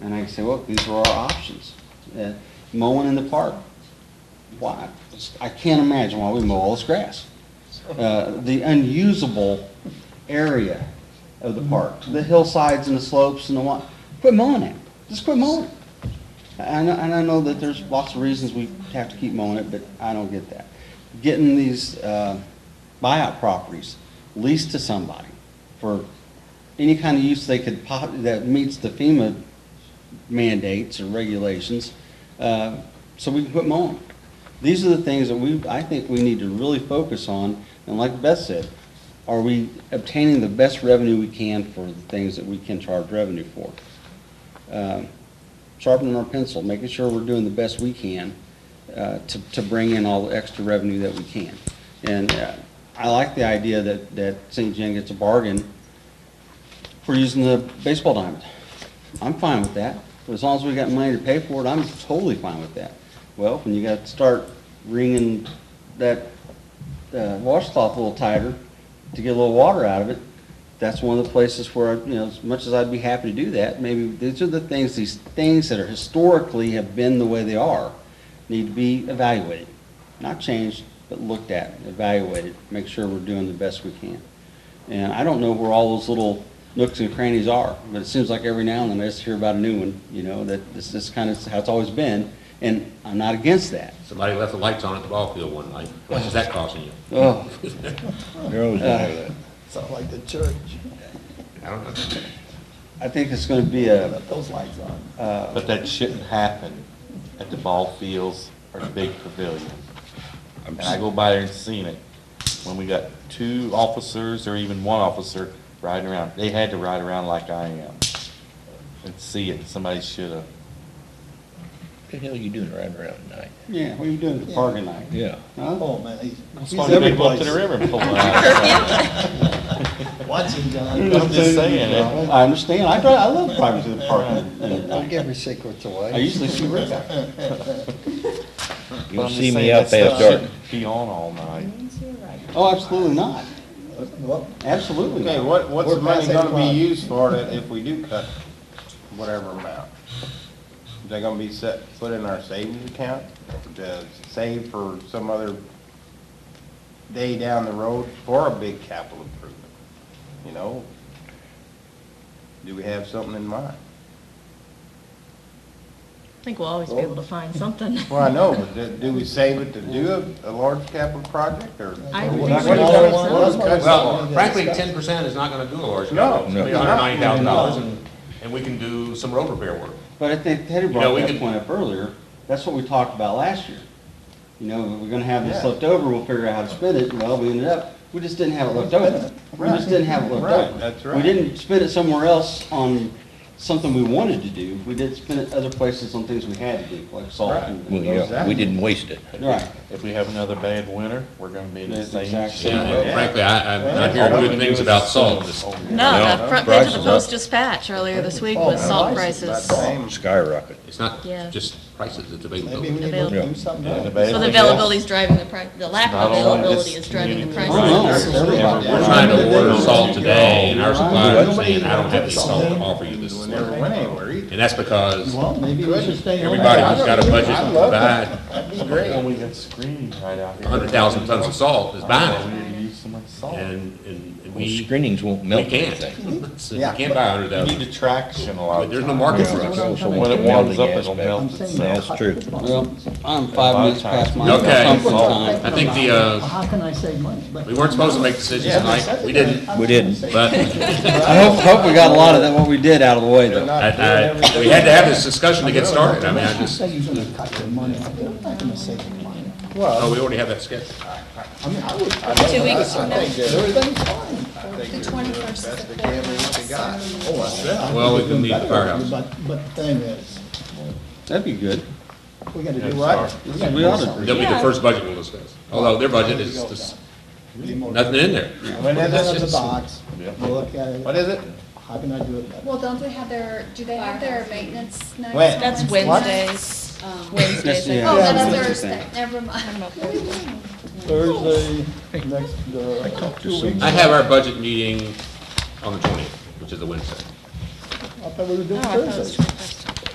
And I can say, look, these are our options. Uh, Mowing in the park, why, I can't imagine why we mow all this grass. Uh, The unusable area of the park, the hillsides and the slopes and the what, quit mowing it, just quit mowing it. And I, and I know that there's lots of reasons we have to keep mowing it, but I don't get that. Getting these uh, buyout properties leased to somebody for any kind of use they could, po- that meets the FEMA mandates or regulations, uh, so we can quit mowing. These are the things that we, I think we need to really focus on, and like Beth said, are we obtaining the best revenue we can for the things that we can charge revenue for? Um, Sharpening our pencil, making sure we're doing the best we can uh, to, to bring in all the extra revenue that we can. And uh, I like the idea that, that St. John gets a bargain for using the baseball diamond. I'm fine with that. As long as we got money to pay for it, I'm totally fine with that. Well, when you got to start wringing that uh, washcloth a little tighter to get a little water out of it, that's one of the places where, you know, as much as I'd be happy to do that, maybe these are the things, these things that are historically have been the way they are, need to be evaluated. Not changed, but looked at, evaluated, make sure we're doing the best we can. And I don't know where all those little nooks and crannies are, but it seems like every now and then I just hear about a new one, you know, that this is kind of how it's always been, and I'm not against that. Somebody left the lights on at the ball field one night. How much is that costing you? Ugh. You're always gonna have that. Sound like the church, I don't know. I think it's gonna be a, got those lights on. But that shouldn't happen at the ball fields or the big pavilion. And I go by there and seen it, when we got two officers or even one officer riding around, they had to ride around like I am. And see it, somebody should have. The hell you doing riding around at night? yeah, what are you doing at the parking lot? Yeah. Huh? Oh, man, he's, he's Somebody every go up to the place. river and pull it out. Watching I'm John. just saying, it- I understand, I drive, I love driving through the parking lot. Don't give your secrets I away. usually see Rick out there. but You'll I'm just see saying me out that past stuff dark. shouldn't Be on all night. Oh, absolutely not, Well, absolutely Okay, not. what, what's We're the money past eight gonna o'clock. be used for that if we do cut whatever amount? Is that gonna be set, put in our savings account, to save for some other day down the road for a big capital improvement? You know? Do we have something in mind? I think we'll always be able to find something. Well, I know, but do- do we save it to do a, a large capital project, or? I What- would what- think what- so. what- what- Well, Well, frankly, ten percent is not gonna do a large job. It's No. gonna be hundred ninety thousand dollars and, and we can do some road repair work. But I think Teddy know, brought we that could- point up earlier, that's what we talked about last year. You know, we're gonna have this Yeah. left over, we'll figure out how to spend it, well, we ended up, we just didn't have it left over. We just didn't have it left Right, over. that's We right. didn't spend it somewhere else on something we wanted to do, we did spend it other places on things we had to do, like salt Right. and. Well, yeah, we didn't waste it. Right, If we have another bad winter, we're gonna be in the That's same exactly shape. right. And Frankly, I, I'm not hearing All we good can do things is about assume salt. it's over. No, the front page of the Prices up. Post Dispatch earlier this week Oh, was salt prices Same. Skyrocket. It's not Yeah. just prices, it's Maybe we availability. need to Available. do something And the else. bad So the thing is- availability is driving the price, the lack Not of only availability this is driving the community, I don't price. know. Everybody- Yeah, We're trying to order Yeah. salt today and our supplier is saying, I don't have any Yeah. salt to offer you this. We summer." never went anywhere either. And that's because Well, maybe we should stay home. everybody who's got a budget I to love buy That'd be When great. we got screening right out here. hundred thousand tons of salt is buying We need to use so much it. salt. And, and and Well, we, screenings won't we melt can't. anything. So We Yeah. can't buy a hundred You thousand. need attraction a lot But of there's no times. market Yeah, for it. so- so When it the warms melting up, it'll aspect. melt I'm saying itself. That's true. well, I'm five minutes past my Okay. comfort time. I think the, uh, How can I save money? But- we weren't supposed to make decisions tonight, we didn't, We didn't. but I hope, hope we got a lot of that, what we did out of the way though. I, I, we had to have this discussion to get started, I mean, I just, Say you're gonna cut your money, I'm not gonna save your money. oh, we already have that scheduled. I mean, I would, I Two weeks from now. think everything's fine. Oh, I said. I Well, we think we're can doing need the better, firehouse. But, but the thing is, That'd be good. we gotta do what? gotta We do ought to- something. That'll be the first budget we'll discuss, although their budget is just, Be more- nothing in there. Put it that's in the just- box, we'll look at What it, is it? how can I do it better? Well, don't they have their, do they have their maintenance next? When? That's Wednesday? Wednesdays, Um, Wednesdays. I Yeah. Oh, think. that's that's what you Thursday, think. never mind. Thursday, next, uh, talked to two weeks. I have our budget meeting on the twentieth, which is a Wednesday. I thought we were doing No, I thought it was Thursday.